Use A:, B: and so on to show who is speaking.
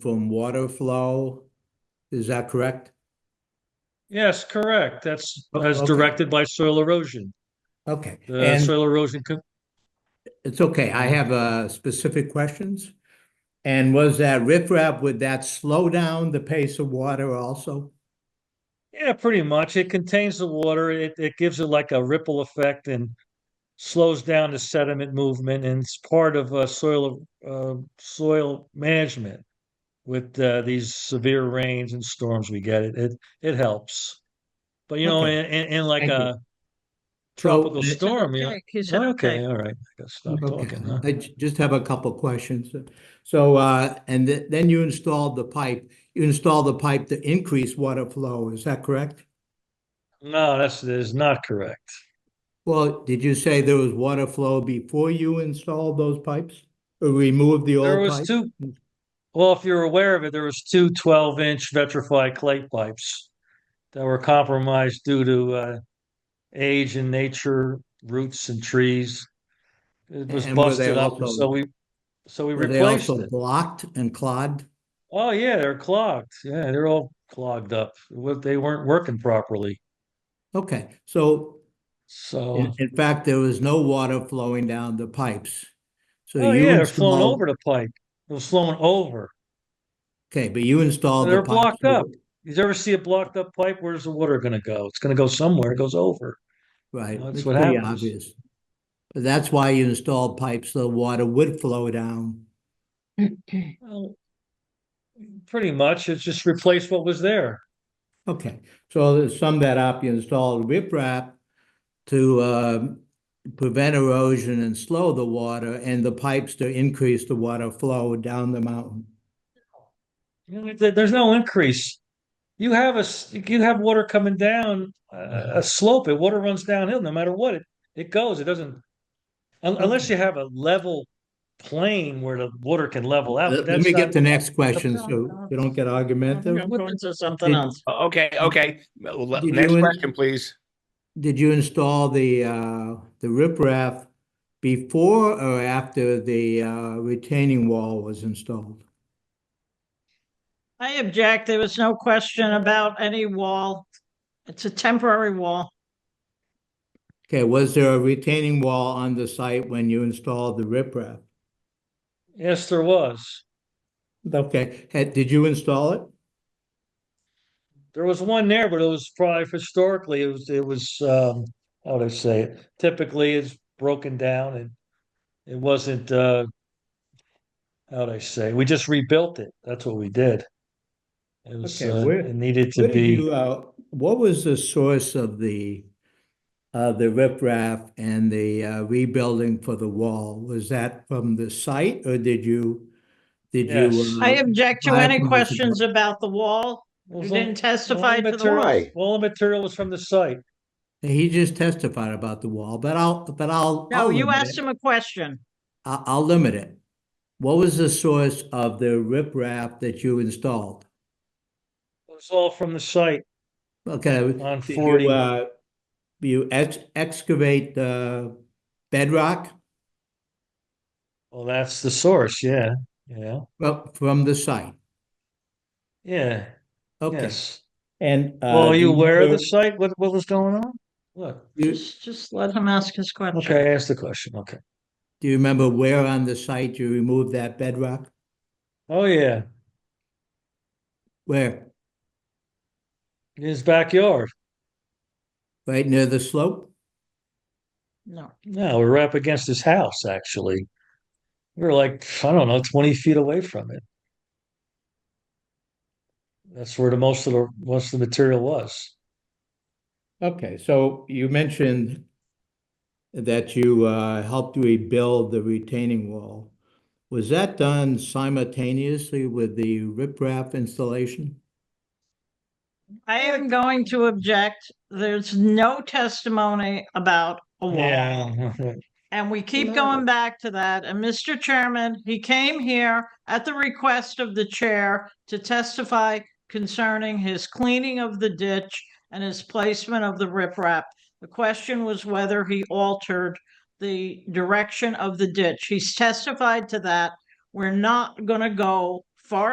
A: from water flow. Is that correct?
B: Yes, correct. That's
A: O-
B: as
A: okay.
B: directed by soil erosion.
A: Okay,
B: The
A: and
B: soil erosion, co-
A: it's okay. I have uh specific questions. And was that riprap, would that slow down the pace of water also?
B: yeah, pretty much. It contains the water. It, it gives it like a ripple effect and slows down the sediment movement and it's part of uh, soil, uh, soil management. With uh, these severe rains and storms we get, it, it, it helps. But you know,
A: Okay.
B: in, in, in like
A: Thank you.
B: a tropical
A: So-
B: storm, you know,
C: Okay, he said
B: okay,
C: okay.
B: all right, I gotta stop
A: Okay,
B: talking, huh?
A: I ju- just have a couple questions. So, uh, and th- then you installed the pipe, you installed the pipe to increase water flow, is that correct?
B: No, that's, that is not correct.
A: Well, did you say there was water flow before you installed those pipes? Or removed the
B: There
A: old
B: was
A: pipe?
B: two, well, if you're aware of it, there was two 12-inch vitrified clay pipes that were compromised due to uh, age and nature, roots and trees. It was
A: And were they
B: busted up, and
A: also-
B: so we, so we
A: Were they
B: replaced
A: also
B: it.
A: blocked and clogged?
B: Oh, yeah, they're clogged. Yeah, they're all clogged up. What- They weren't working properly.
A: Okay, so
B: So,
A: in, in fact, there was no water flowing down the pipes. So
B: oh,
A: you
B: yeah, they're flowing
A: installed-
B: over the pipe. It was flowing over.
A: Okay, but you installed the
B: They're
A: pipes.
B: blocked
A: so-
B: up. You ever see a blocked up pipe? Where's the water going to go? It's going to go somewhere. It goes over.
A: Right,
B: That's
A: that's
B: what
A: pretty
B: happens.
A: obvious. But that's why you install pipes, so the water would flow down.
B: Well, pretty much, it's just replaced what was there.
A: Okay, so to sum that up, you installed riprap to um, prevent erosion and slow the water, and the pipes to increase the water flow down the mountain.
B: You know, there- there's no increase. You have a, s- you have water coming down uh, a slope, and water runs downhill no matter what. It, it goes, it doesn't, un- unless you have a level plane where the water can level out.
A: Let let
B: but that's
A: me get
B: not-
A: to next question, so we don't get
C: I'm
A: argumentative.
C: going to something
A: It-
C: else.
D: Okay, okay. Well, le-
A: Did
D: Next
A: you in-
D: question, please.
A: Did you install the, uh, the riprap before or after the uh, retaining wall was installed?
C: I object. There was no question about any wall. It's a temporary wall.
A: Okay, was there a retaining wall on the site when you installed the riprap?
B: Yes, there was.
A: Okay, had, did you install it?
B: There was one there, but it was probably historically, it was, it was, um, how would I say it? Typically, it's broken down and it wasn't, uh, how'd I say? We just rebuilt it. That's what we did. It was,
A: Okay,
B: uh,
A: where-
B: it needed to
A: Where did
B: be,
A: you, uh, what was the source of the, uh, the riprap and the uh, rebuilding for the wall? Was that from the site or did you, did
B: Yes.
A: you?
C: I
A: uh,
C: object to
A: I
C: any
A: apologize.
C: questions about the wall.
B: Well,
C: You
B: it's all-
C: didn't testify
B: all
C: to the
B: material-
C: wall.
D: Why?
B: All the material was from the site.
A: He just testified about the wall, but I'll, but I'll.
C: No,
A: I'll
C: you
A: limit
C: asked
A: it.
C: him a question.
A: I, I'll limit it. What was the source of the riprap that you installed?
B: It was all from the site
A: Okay,
B: on
A: Did
B: forty.
A: You, uh, you ex- excavate the bedrock
B: Well, that's the source. Yeah, yeah,
A: well, from the site.
B: yeah,
A: Okay.
B: yes.
A: And. uh,
B: Well, are you
A: do
B: aware of the
A: know-
B: site? What, what was going on? What?
A: you-
C: Just, just let him ask his question.
B: Okay, I asked the question. Okay.
A: Do you remember where on the site you removed that bedrock?
B: Oh, yeah.
A: Where?
B: In his backyard.
A: Right near the slope?
C: No,
B: No, we were up against his house, actually. We were like, I don't know, 20 feet away from it. That's where the most of the most of the material was.
A: Okay, so you mentioned that you uh, helped rebuild the retaining wall. Was that done simultaneously with the riprap installation?
C: I am going to object. There's no testimony about a wall. And we keep going back to that. And Mr. Chairman, he came here at the request of the chair to testify concerning his cleaning of the ditch and his placement of the riprap. The question was whether he altered the direction of the ditch. He's testified to that. We're not going to go far